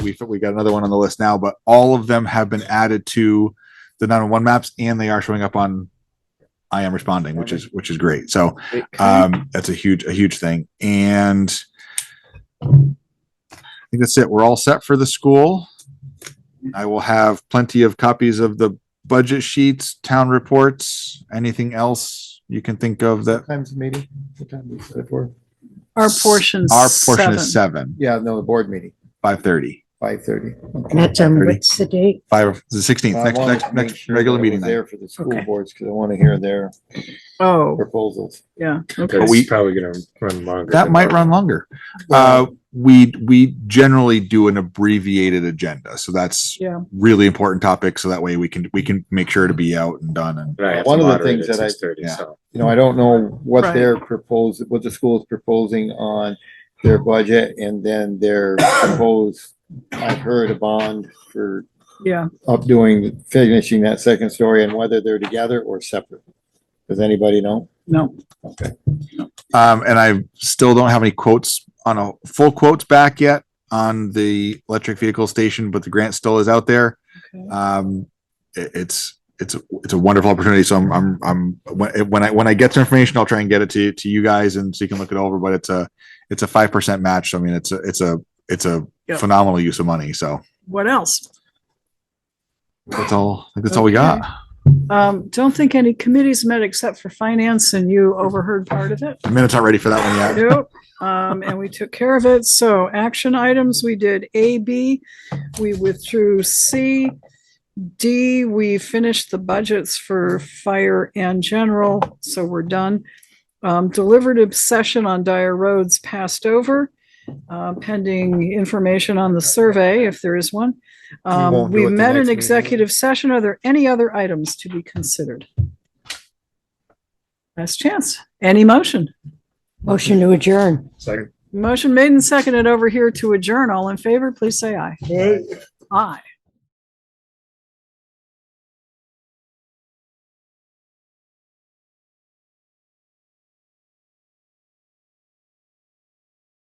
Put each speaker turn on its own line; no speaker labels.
we we got another one on the list now, but all of them have been added to the 911 maps, and they are showing up on I am responding, which is which is great. So um, that's a huge a huge thing, and I think that's it. We're all set for the school. I will have plenty of copies of the budget sheets, town reports, anything else you can think of that
Times the meeting, what time is it for?
Our portion's
our portion is
seven.
seven,
Yeah, no, the board meeting,
five thirty,
five thirty. Uh,
That's on,
Pretty.
what's the date?
five, the sixteenth, next, next, next regular meeting night.
There for the school
Okay.
boards, because I want to hear their
Oh,
proposals.
yeah. Okay.
It's
we-
probably gonna run longer.
That
than
might
normal.
run longer. Uh, we, we generally do an abbreviated agenda, so that's
Yeah.
really important topic, so that way we can, we can make sure to be out and done and
And I have
One
to
of the
moderate
things
at
that I-
6:30,
yeah.
so.
You know, I don't know what
Right.
they're proposing, what the school's proposing on their budget and then their proposed, I've heard a bond for
Yeah,
updoing, finishing that second story and whether they're together or separate. Does anybody know?
no,
Um, and I still don't have any quotes on a full quotes back yet on the electric vehicle station, but the grant still is out there.
Okay.
Um, it, it's, it's, a- it's a wonderful opportunity. So I'm, I'm, I'm, when when I, when I get some information, I'll try and get it to, to you guys and so you can look it over, but it's a, it's a 5% match. So, I mean, it's a, it's a, it's a
Yep.
phenomenal use of money. So
what else?
that's all, I think that's all we got.
Um, don't think any committees met except for finance and you overheard part of it.
The minute's not ready for that one yet.
Nope. Um, and we took care of it. So action items, we did A, B, we withdrew C, D, we finished the budgets for fire and general, so we're done. Um, delivered obsession on dire roads passed over, uh, pending information on the survey, if there is one. Um,
won't do
we
it the
met
next
an
meeting.
executive session. Are there any other items to be considered? Last chance. Any motion?
Motion to adjourn.
Second.
Motion made and seconded over here to adjourn. All in favor, please say aye. Aye.